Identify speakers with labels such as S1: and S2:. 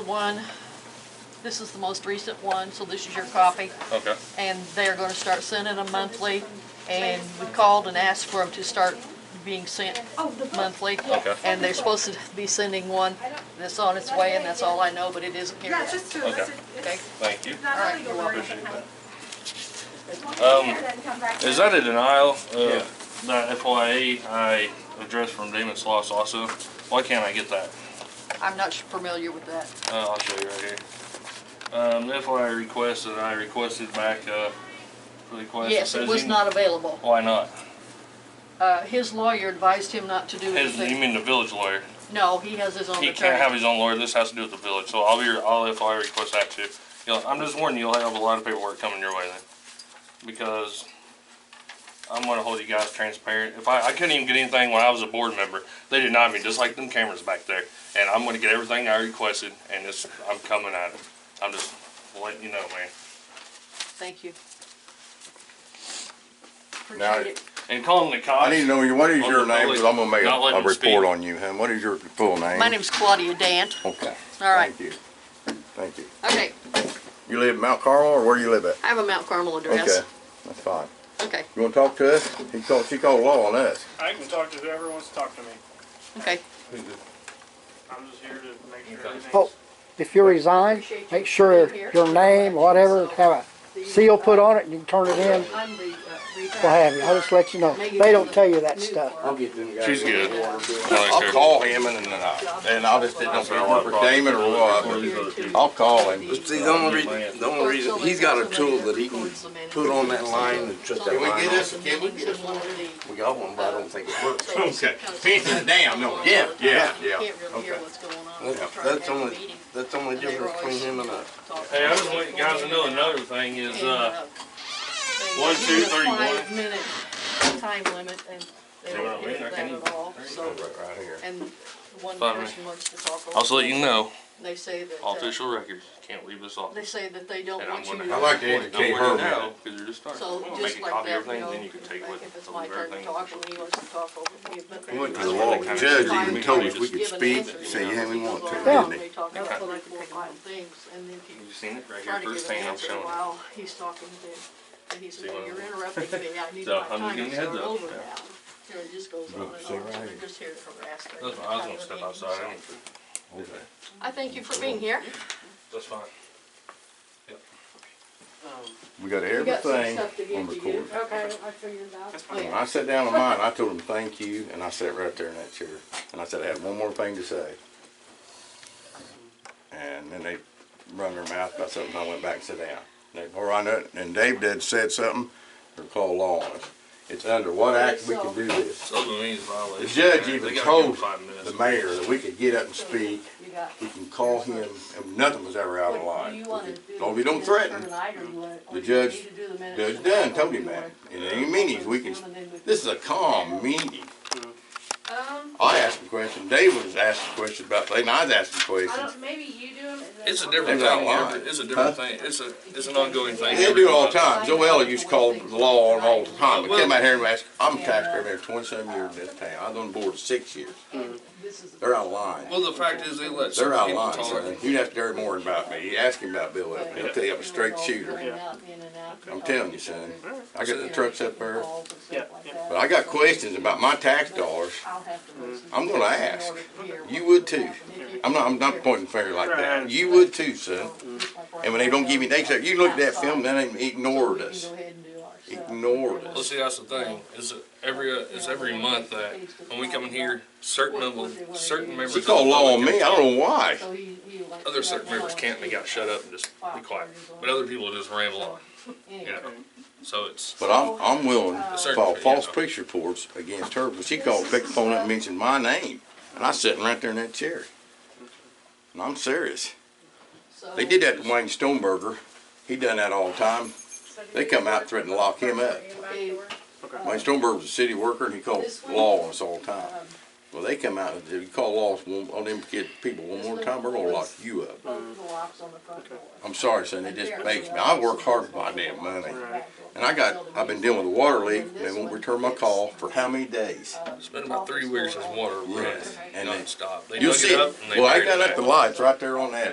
S1: one. This is the most recent one, so this is your copy.
S2: Okay,
S1: And they're gonna start sending them monthly. And we called and asked for them to start being sent
S3: Oh, the book.
S1: monthly.
S2: Okay.
S1: And they're supposed to be sending one that's on its way, and that's all I know, but it isn't here
S3: Yeah,
S1: yet.
S3: just to, it's,
S2: Okay.
S1: Okay?
S3: it's
S2: thank you.
S1: All
S3: not
S1: right,
S3: illegal.
S1: you're welcome. Um,
S3: Appreciate that.
S2: Is that a denial of Uh, that FYA I addressed from Damon Sloss also? Why can't I get that?
S1: I'm not familiar with that.
S2: Uh, I'll show you right here. Um, the FYI request that I requested back, uh, for the question.
S1: Yes, it was not available.
S2: Why not?
S1: Uh, his lawyer advised him not to do
S2: His, you
S1: anything.
S2: mean the village lawyer?
S1: No, he has his own attorney.
S2: He can't have his own lawyer, this has to do with the village, so I'll be, I'll FYI request that too. You know, I'm just warning you, you'll have a lot of paperwork coming your way then, because I'm gonna hold you guys transparent. If I, I couldn't even get anything when I was a board member, they denied me, just like them cameras back there. And I'm gonna get everything I requested, and it's, I'm coming at it. I'm just letting you know, man.
S1: Thank you.
S4: Now,
S1: Appreciate it.
S2: And calling the cops.
S4: I need to know, you. what is
S2: On
S4: your
S2: the
S4: name,
S2: public,
S4: because I'm gonna make a,
S2: not letting
S4: a
S2: them speak.
S4: report on you, hon. What is your full name?
S1: My name's Claudia Dant.
S4: Okay.
S1: All right.
S4: Thank you. Thank you.
S1: Okay,
S4: You live in Mount Carmel, or where you live at?
S1: I have a Mount Carmel
S4: Okay,
S1: address.
S4: that's fine.
S1: Okay,
S4: You wanna talk to us? He called, she called law on us.
S5: I can talk to whoever wants to talk to me.
S1: okay.
S5: I'm just here to make sure
S6: Oh,
S5: everything's.
S6: if you resign, make sure your name, whatever, have a seal put on it and you can turn it in,
S1: I'm the, uh,
S6: we'll have you. I'll just let you know. They don't tell you that stuff.
S7: I'll get them guys.
S2: She's good.
S4: I'll call him and, then I- and I'll just, didn't know if it was for Damon or what. I'll call him.
S7: See, the only reason, the only reason, he's got a tool that he can put on that line and shut that
S4: Can we
S7: line
S4: get
S7: off.
S4: this, can we get this?
S7: We got one, but I don't think it works.
S4: Okay. Damn, no.
S7: Yeah,
S4: yeah, yeah,
S1: You can't really hear
S4: okay.
S1: what's going on.
S7: That's,
S1: Try to
S7: that's
S1: have a
S7: only,
S1: meeting,
S7: that's the only
S1: and they were
S7: difference between
S1: always
S7: him and us.
S1: talking.
S2: Hey, I just want you guys to know another thing is,
S1: And,
S2: uh,
S1: uh, they
S2: one,
S1: give
S2: two,
S1: you a
S2: three, one.
S1: Five-minute time limit, and they
S2: See what I
S1: don't
S2: mean?
S1: give
S2: I
S1: it that
S2: can
S1: at all, so,
S4: Right, right here.
S1: and one
S2: Fine, man.
S1: person wants to talk. over
S2: I'll just let you know,
S1: They say that,
S2: all
S1: uh,
S2: official records, can't leave this off.
S1: they say that they don't
S2: And I'm
S1: want you
S2: gonna.
S1: to.
S4: I like to educate her,
S2: Cause
S4: man.
S2: you're just starting.
S1: So
S2: We'll make
S1: just
S2: a
S1: like
S2: copy of
S1: that, you
S2: everything,
S1: know,
S2: then you can take
S1: like
S2: what-
S1: if it's
S2: of
S1: my turn to
S2: everything.
S1: talk and he wants to talk over me, but.
S4: We went to the law with the judge, he even told us we could speak, say anything we want to, didn't he?
S1: They talk about
S2: Okay.
S1: four or five things and then if
S2: You
S1: you
S2: seen it right here,
S1: try to
S2: first
S1: give an
S2: thing I'm
S1: answer
S2: showing. you.
S1: while he's talking then, and he says,
S2: See
S1: well,
S2: what I
S1: you're
S2: mean?
S1: interrupting me, I need
S2: So,
S1: my
S2: I'm just
S1: time to
S2: giving you a
S1: start
S2: heads up,
S1: over now.
S2: yeah.
S1: You know, it just goes on and on,
S4: so
S1: so
S4: right.
S1: they're just here to harass. them.
S2: That's why I was gonna step outside, I don't,
S1: I thank you for being here.
S2: that's fine.
S4: We got
S1: We got some stuff to
S4: everything on
S1: give to you.
S4: record.
S3: Okay, I figured that.
S1: Oh,
S4: When
S1: yeah.
S4: I sat down on mine, I told him thank you, and I sat right there in that chair, and I said I had one more thing to say. And then they run their mouth about something, I went back and sat down. And Before I knew it, and Dave did said something, they're called law on us. It's under what act we can do this.
S2: Southern means violation.
S4: The judge
S2: They
S4: even
S2: gotta give
S4: told
S2: them five minutes.
S4: the mayor that we could get up and speak,
S1: You got.
S4: we can call him, and nothing was ever out
S1: What
S4: of
S1: do
S4: line.
S1: you wanna do?
S4: Long as you don't
S1: Just turn
S4: threaten.
S1: it out or you wanna- or
S4: The
S1: you
S4: judge-
S1: need to do the minutes
S4: Judge
S1: and
S4: Dunn
S1: that's all
S4: told me
S1: you
S4: that,
S1: wanna-
S4: in any meetings, we can, this is a calm meeting.
S3: Um,
S4: I asked a question, Dave was asking questions about things, and I was asking
S3: I
S4: questions.
S3: don't, maybe you do them.
S2: It's a different
S4: They're not
S2: thing,
S4: lying.
S2: every- it's a different thing, it's a, it's an ongoing thing.
S4: They do it all the time, Joe Eller used to call the law on all the time, but came out here and asked, I'm a taxpayer there twenty-seven years in this town, I've been on the board six years.
S1: This is the-
S4: They're out of line,
S2: Well, the fact is, they let some
S4: they're out of
S2: people
S4: line,
S2: talk.
S4: son. You'd ask Gary Moore about me, you ask him about Bill Evans, he'll tell you I'm a straight shooter.
S1: Going out, in and out,
S4: I'm telling you, son, I got the trucks up there,
S1: calls and stuff
S5: Yeah,
S1: like
S5: yeah.
S1: that.
S4: but I got questions about my tax dollars,
S1: I'll have to listen.
S4: I'm gonna ask. You
S1: You
S4: would too. I'm not, I'm not pointing finger like that, you would too, son. And when they don't give me, they say, you look at that film, they didn't ignored us. Ignored
S2: Well, see, that's the thing, is that every, uh, is every month that, when we come in here, certain members, certain members.
S4: She
S2: of the
S4: called law on
S2: public
S4: me,
S2: can
S4: I
S2: talk.
S4: don't know why.
S2: Other certain members can't, and they gotta shut up and just be quiet, but other people just ramble on, you know, so it's.
S4: But I'm, I'm willing to file false
S2: Yeah.
S4: police reports against her, but she called, picked the phone up and mentioned my name. And I was sitting right there in that chair. And I'm serious. They did that to Wayne Stoneberger. He done that all the time. They come out threatening to lock him up. Wayne Stoneberger was a city worker and he called law on us all the time. Well, they come out and if you call law on on them kid people one more time, we're gonna lock you up. I'm sorry, son, it just makes me, I work hard for my damn money. And I got, I've been dealing with a water leak, and they won't return my call for how many days?
S2: It's been about three weeks since water ran
S4: Yes, and they-
S2: nonstop. They
S4: You'll
S2: dug
S4: see,
S2: it up
S4: it.
S2: and they
S4: well, I
S2: buried it
S4: got
S2: back.
S4: up the lights right there on that.